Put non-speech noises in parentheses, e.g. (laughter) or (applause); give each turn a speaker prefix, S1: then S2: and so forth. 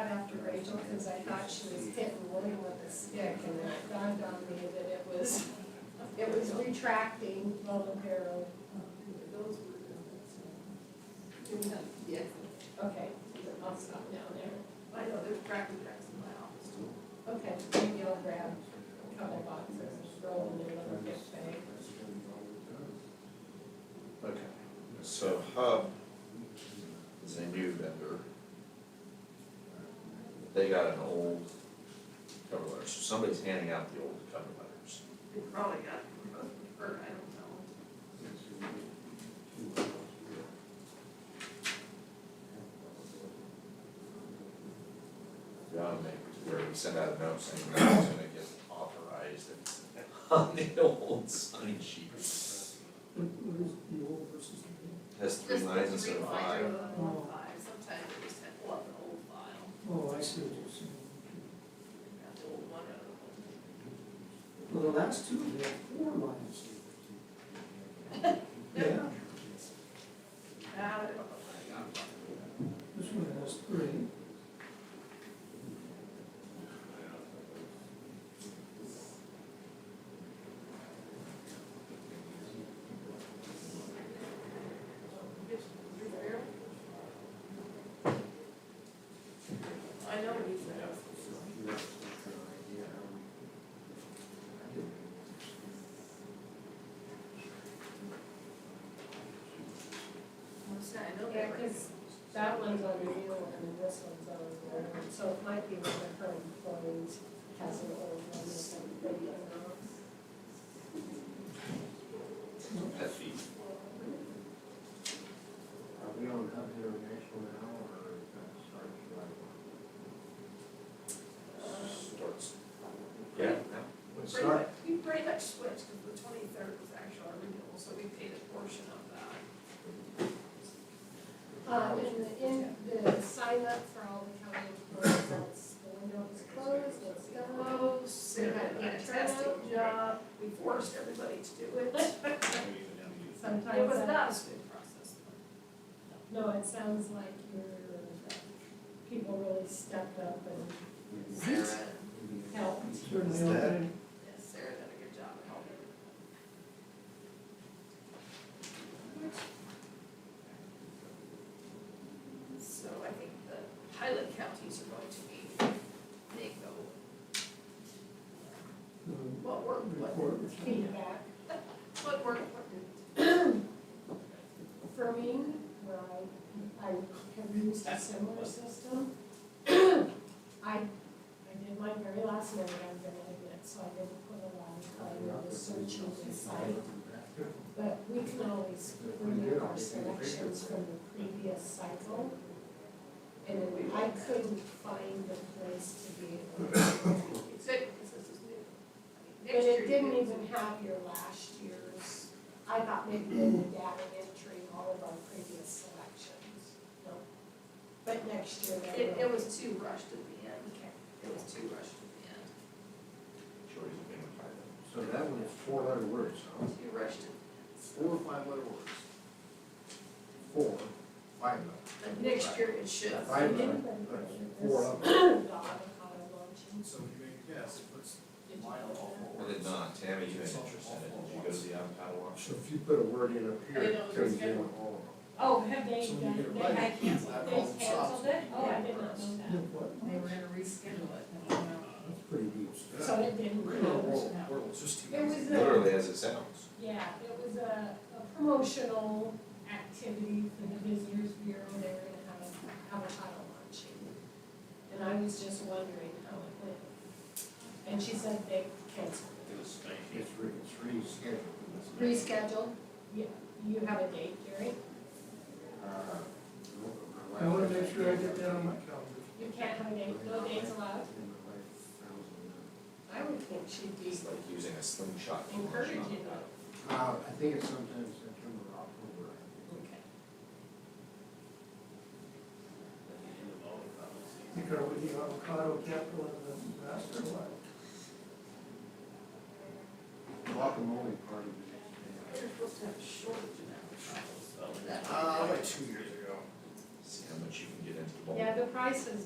S1: Rachel because I thought she was hitting William with a stick and then it dawned on me that it was, it was retracting momentarily.
S2: Yeah,
S1: Okay, I'll stop down there.
S2: I know, there's cracking cracks in my office too.
S1: Okay, maybe I'll grab a couple boxes, roll in a little gift bag.
S3: Okay, so uh, um, Hub is a new vendor. They got an old cover letter, so somebody's handing out the old cover letters.
S2: They probably got, it, or I don't know.
S3: Yeah, I'll make, where we send out a note saying that's gonna get authorized and on the old sign sheet. Has three lines
S2: Just the
S3: instead of
S2: three lines
S3: five.
S2: rather than one five, sometimes they just have one old file,
S4: Oh, I see what you're saying.
S2: They've got the old one out of the one.
S4: Well, the last two, they have four lines. (laughs) Yeah,
S2: Ah, I don't know where I got one.
S4: this one has three.
S2: I know he's there. I'm saying, I know
S1: Yeah,
S2: they're.
S1: because that one's on you and this one's on there, so it might be one of her employees has an old one or something.
S3: That fee.
S5: Are we on Hub International now, or is that starting July
S3: Starts. Yeah.
S5: one?
S2: Pretty much, we pretty much switched, because the twenty-third was actually our renewal, so we paid a portion of that.
S1: Um, and the, in, the sign up for all the county employees, that's, the window is closed, it's done.
S2: Close, they had a fantastic job, uh, we forced everybody to do it. It
S1: Sometimes,
S2: was
S1: that-
S2: not a smooth process.
S1: no, it sounds like your, uh, people really stepped up and
S2: Sarah,
S1: helped.
S4: Certainly,
S5: Is that-
S4: okay.
S2: yes, Sarah did a good job of helping. So I think the pilot counties are going to be, they go,
S4: the
S2: what work, what,
S4: uh, report.
S1: feedback.
S2: what work, what did
S1: Firming, where I, I have used a similar system. (clears throat) I, I did my very last one, I'm gonna admit, so I didn't put a lot of time into Uh, searching the site. But we can always remove our selections from the previous cycle. And then I couldn't find a place to be able to. do that.
S2: Except because this is new.
S1: But it didn't even have your last year's, I thought maybe in the data entry, all of our previous selections. No. But next year, they
S2: It,
S1: will.
S2: it was too rushed at the end. It was too rushed at the end.
S3: Shorty's been with five.
S5: So that one is four letter words, huh?
S2: Too rushed at.
S5: Four or five letter words? Four, five letter.
S2: But next year it should.
S5: Five letter, that's four of them.
S1: The avocado luncheon.
S6: So you may guess, if it's
S1: Did you
S6: mile
S1: know
S6: off
S1: that?
S6: or.
S3: I did not, uh, Tammy, you had interest in it, did you go to the avocado
S5: So
S3: auction?
S5: if you put a word in up here,
S2: I know,
S5: it
S2: it's
S5: tells you
S2: good.
S5: all
S1: Oh, have they
S6: So when you
S1: done,
S6: get ready,
S1: they had canceled,
S6: that all
S1: they
S6: stops.
S1: canceled it? Oh, I
S2: Yeah,
S1: did
S2: for
S1: not
S2: us.
S1: know
S4: The what?
S7: They were gonna reschedule it, I don't know.
S5: of them. That's pretty deep
S1: that.
S5: stuff.
S1: So it didn't.
S6: Real
S1: count.
S6: world, world, it's just.
S1: It was a-
S3: Literally as it sounds.
S1: Yeah, it was a, a promotional activity for the visitors bureau, they were gonna have a avocado luncheon. And I was just wondering how it went. And she said they canceled it.
S5: It's re, it's rescheduled.
S1: Rescheduled? Yeah, you have a date, Gary?
S5: Uh, my
S4: I wanna
S5: wife-
S4: make sure I get that on my calendar.
S1: You can't have a date, no dates allowed?
S5: And my wife found
S1: I would think she'd be
S3: It's like using a slingshot. to launch an
S1: encouraging
S3: avocado.
S1: it.
S5: some, uh, I think it's sometimes September, October, I think.
S1: Okay.
S4: Think are we the avocado capital of the disaster, what?
S5: Guacamole party the next
S2: They're supposed to have a shortage of avocados, so that.
S6: Uh, like two years ago.
S3: See how much you can get into the bowl.
S1: Yeah, the prices